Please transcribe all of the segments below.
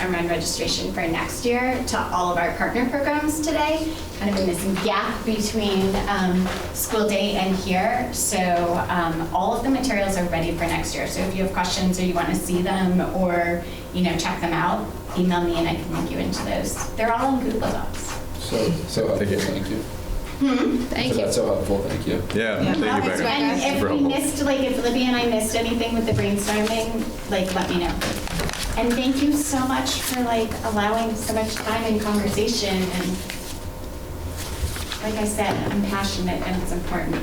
and run registration for next year to all of our partner programs today. Kind of in this gap between um, school day and here. So um, all of the materials are ready for next year. So if you have questions or you want to see them or, you know, check them out, email me and I can link you into those. They're all in Google Docs. So, so helpful, thank you. Thank So you. that's so helpful, thank you. Yeah. Yeah, thank you, Well, it's Becca. right. And if Super we helpful. missed, like, if Libby and I missed anything with the brainstorming, like, let me know. And thank you so much for, like, allowing so much time and conversation and, like I said, I'm passionate and it's important.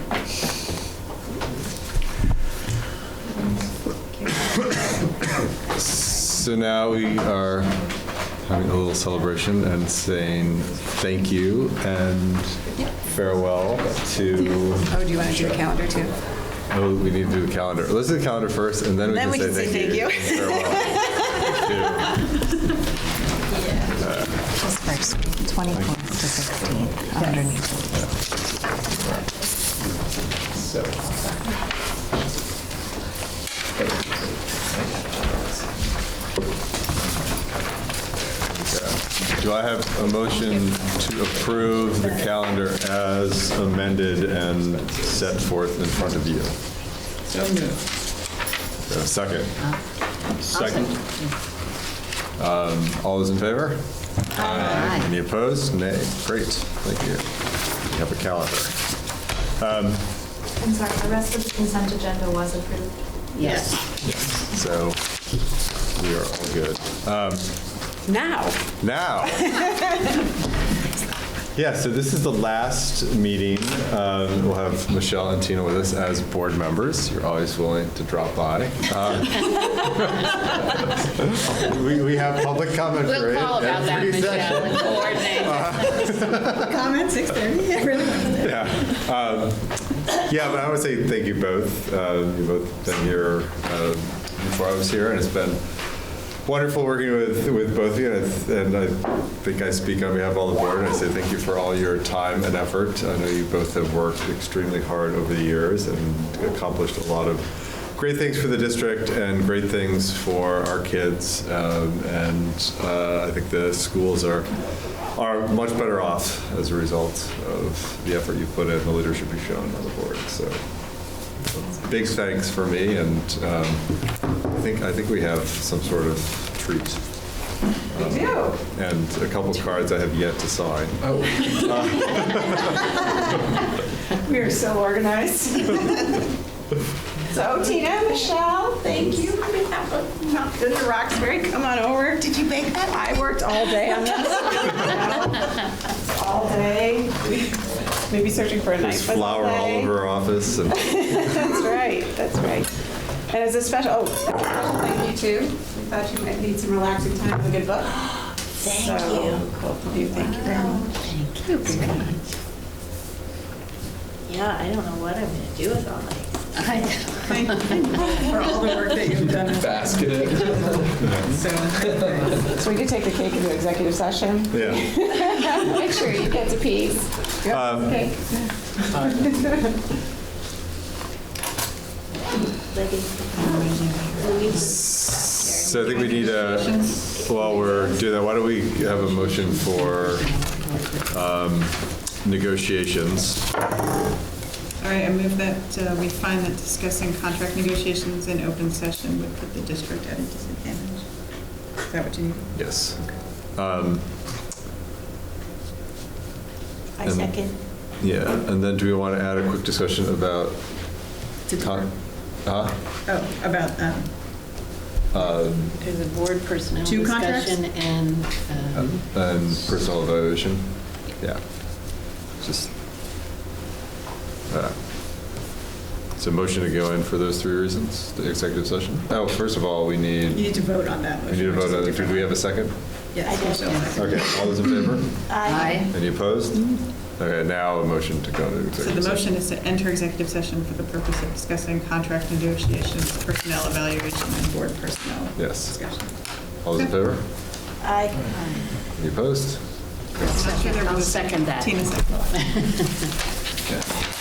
So now we are having a little celebration and saying thank you and farewell to, Oh, do you want to do the calendar too? oh, we need to do the calendar. Let's do the calendar first and then we Then can say thank you. Farewell. Just first, 24th to 16th, underneath. So. to- Do I have a motion to approve the calendar as amended and set forth in front of you? So moved. Uh, Second. Second. Um, All those in favor? Aye. Any opposed? Nay. Great, thank you. We have a calendar. I'm sorry, the rest of the consent agenda was approved. Yes. So we are all good. Um, Now. Now. Yeah, so this is the last meeting. Um, We'll have Michelle and Tina with us as board members. You're always willing to drop by. Um, We we have public comment period. We'll call about that, every session. Michelle, and coordinate. Yeah. um, Yeah, but I would say thank you both. Uh, You've both been here um, before I was here, and it's been wonderful working with, with both of you. And I- And I think I speak on behalf of all the board, and I say thank you for all your time and effort. I know you both have worked extremely hard over the years and accomplished a lot of great things for the district and great things for our kids. Um, And uh, I think the schools are, are much better off as a result of the effort you put in, the leadership you've shown on the board. So big thanks for me, and um, I think, I think we have some sort of treat. We do. And a couple cards I have yet to sign. Oh, We are so organized. So Tina, Michelle, thank you. on behalf of Mount Good to Roxbury, come on over. Did you bake that? I worked all day on this. All day. Maybe searching for a There's nice one flour all today. over our office, and That's right, that's right. And as a special, oh, thank you too. We thought you might need some relaxing time with a good book. Thank you. Both of you, thank you very much. Yeah, I don't know what I'm gonna do with all my For all the work that you've done. basket it. So we could take the cake into executive session. yeah. Make sure you get to piece. Um, Okay. So I think we need a, while we're doing that, why don't we have a motion for um, negotiations? All right, I move that uh, we find that discussing contract negotiations in open session would put the district at a disadvantage. Is that what you need? Yes. Um, I And- second. Yeah, and then do we want to add a quick discussion about? con- Huh? Oh, about, um, There's a board personnel Two contracts? discussion and um, And personal evaluation? Yeah. Just. uh, So motion to go in for those three reasons, the executive session? Oh, first of all, we you need, need to vote on that we motion. need to which is vote on, do different. we have a second? Yes, I Michelle, don't- second. Okay, all those in favor? Aye. Any opposed? Okay, now a motion to go into So executive the session. motion is to enter executive session for the purpose of discussing contract negotiations, personnel evaluation, and board personnel Yes. discussion. All those in favor? I, Any opposed? I'm not sure there I'll was- second that. Tina seconded. Okay.